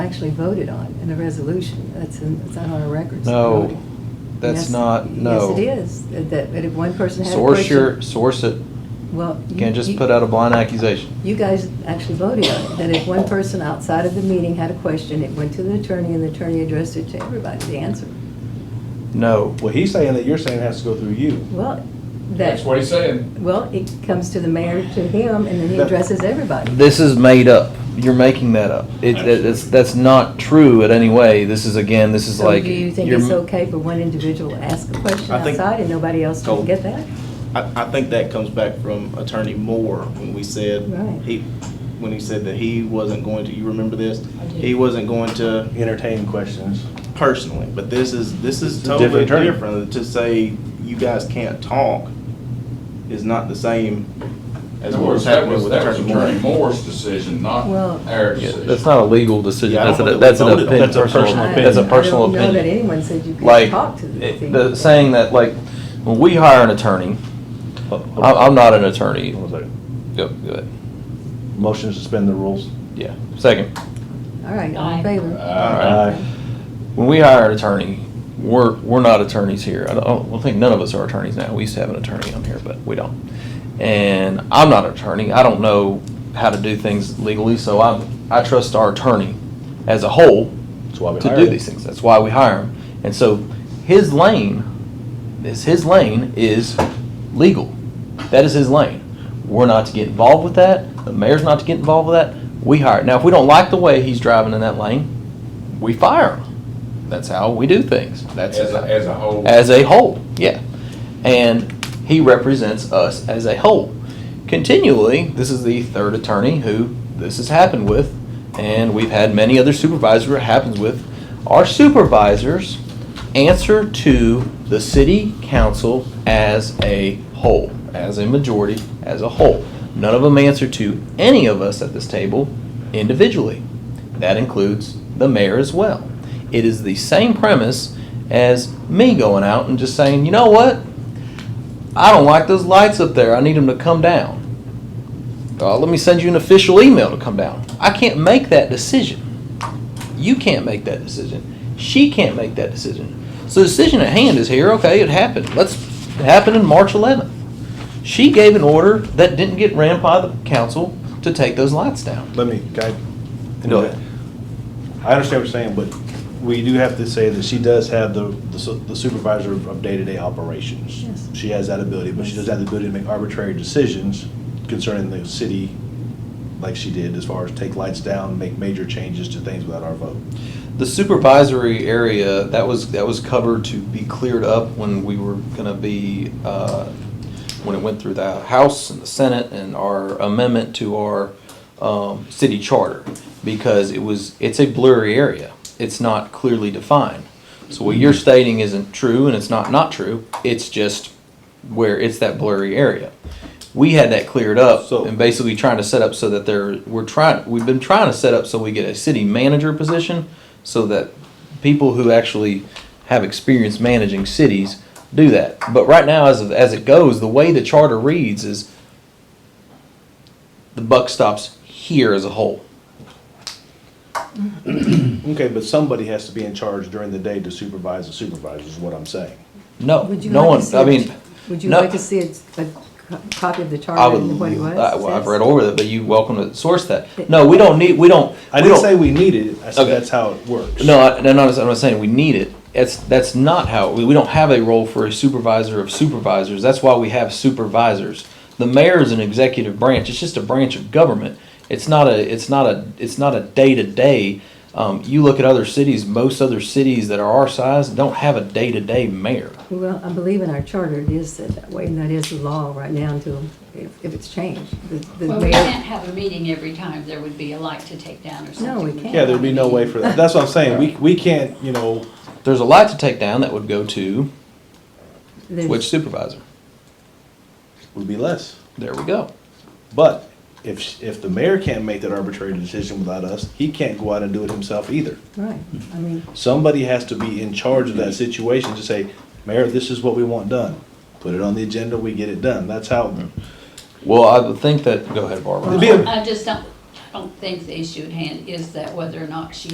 actually voted on in the resolution. That's, in- it's not on our records. No, Voted. that's Yes- not- no. Yes, it is. That- That, that if one person had a Source your, question. source it. Well. You can't just put out a blind accusation. You guys actually voted on it, that if one person outside of the meeting had a question, it went to the attorney and the attorney addressed it to everybody to answer. No. Well, he's saying that you're saying it has to go through you. Well, That's what that, he's saying. well, it comes to the mayor, to him, and then he That- addresses everybody. This is made up. You're making that up. It, it- it's, that's not true in any way. This is, again, this is So like. do you think you're- it's okay for one individual to ask a question I think- outside and nobody else Oh. can get that? I, I think that comes back from Attorney Moore when we said, Right. he, when he said that he wasn't going to, you remember this? I do. He wasn't going to Entertain questions. personally, but this is, this is It's a totally different attorney. different. To say you guys can't talk is not the same as That what was was- that happening was- with that was Attorney Moore. Moore's decision, not Well- our Yeah, decision. That's not a legal decision. Yeah, I That's don't an, think that's an we voted on opinion. it. That's a personal I- That's a I personal don't know that opinion. anyone said you Like, could talk to the it- people. the saying that, like, when we hire an attorney, Oh, I'm, I'm not an attorney. One second. Go, go ahead. Motion to suspend the rules. Yeah, second. All right, all Aye. in favor? Uh, When we hire an attorney, we're, we're not attorneys here. I don't, I don't think none of us are attorneys now. We used to have an attorney on here, but we don't. And I'm not an attorney. I don't know how to do things legally, so I, I trust our attorney as a whole That's why we to hired do him. these things. That's why we hire him. And so his lane is his lane is legal. That is his lane. We're not to get involved with that. The mayor's not to get involved with that. We hire. Now, if we don't like the way he's driving in that lane, we fire him. That's how we do things. That's As a, as a whole. as a whole, yeah. And he represents us as a whole. Continually, this is the third attorney who this has happened with, and we've had many other supervisors where it happens with. Our supervisors answer to the city council as a whole, as a majority, as a whole. None of them answer to any of us at this table individually. That includes the mayor as well. It is the same premise as me going out and just saying, you know what? I don't like those lights up there. I need them to come down. Uh, let me send you an official email to come down. I can't make that decision. You can't make that decision. She can't make that decision. So the decision at hand is here. Okay, it happened. Let's it happened in March 11th. She gave an order that didn't get ran by the council to take those lights down. Let me, guy. Go ahead. I understand what you're saying, but we do have to say that she does have the the su- the supervisor of day-to-day operations. Yes. She has that ability, but she does have the ability to make arbitrary decisions concerning the city, like she did, as far as take lights down, make major changes to things without our vote. The supervisory area, that was, that was covered to be cleared up when we were gonna be, uh, when it went through the House and the Senate and our amendment to our, um, city charter. Because it was, it's a blurry area. It's not clearly defined. So what you're stating isn't true and it's not not true. It's just where it's that blurry area. We had that cleared up So- and basically trying to set up so that there, we're trying, we've been trying to set up so we get a city manager position so that people who actually have experience managing cities do that. But right now, as, as it goes, the way the charter reads is the buck stops here as a whole. Okay, but somebody has to be in charge during the day to supervise the supervisors, is what I'm saying. No, Would you no like to one, see I a- mean. Would you no- like to see a, a co- copy of the I charter would, and what it was? I- well, I've says? read over that, but you welcome to source that. No, we don't need, we don't. I we didn't don't- say we need it, I said Okay. that's how it works. No, I, no, no, I'm not saying we need it. That's that's not how we, we don't have a role for a supervisor of supervisors. That's why we have supervisors. The mayor is an executive branch. It's just a branch of government. It's not a it's not a it's not a day to day. You look at other cities. Most other cities that are our size don't have a day to day mayor. Well, I believe in our charter, it is said that way, and that is the law right now until, if, if it's changed. The- the Well, we mayor- can't have a meeting every time there would be a light to take down or No, something. we can't. Yeah, there'd be no way for that. That's what I'm saying, we, we can't, you know, There's a lot to take down that would go to there's- which supervisor. would be less. There we go. But if, if the mayor can't make that arbitrary decision without us, he can't go out and do it himself either. Right, I mean, Somebody has to be in charge of that situation to say, Mayor, this is what we want done. Put it on the agenda, we get it done. That's how, Well, I would think that. Go ahead, Barbara. It'd be a- I just don't, I don't think the issue at hand is that whether or not she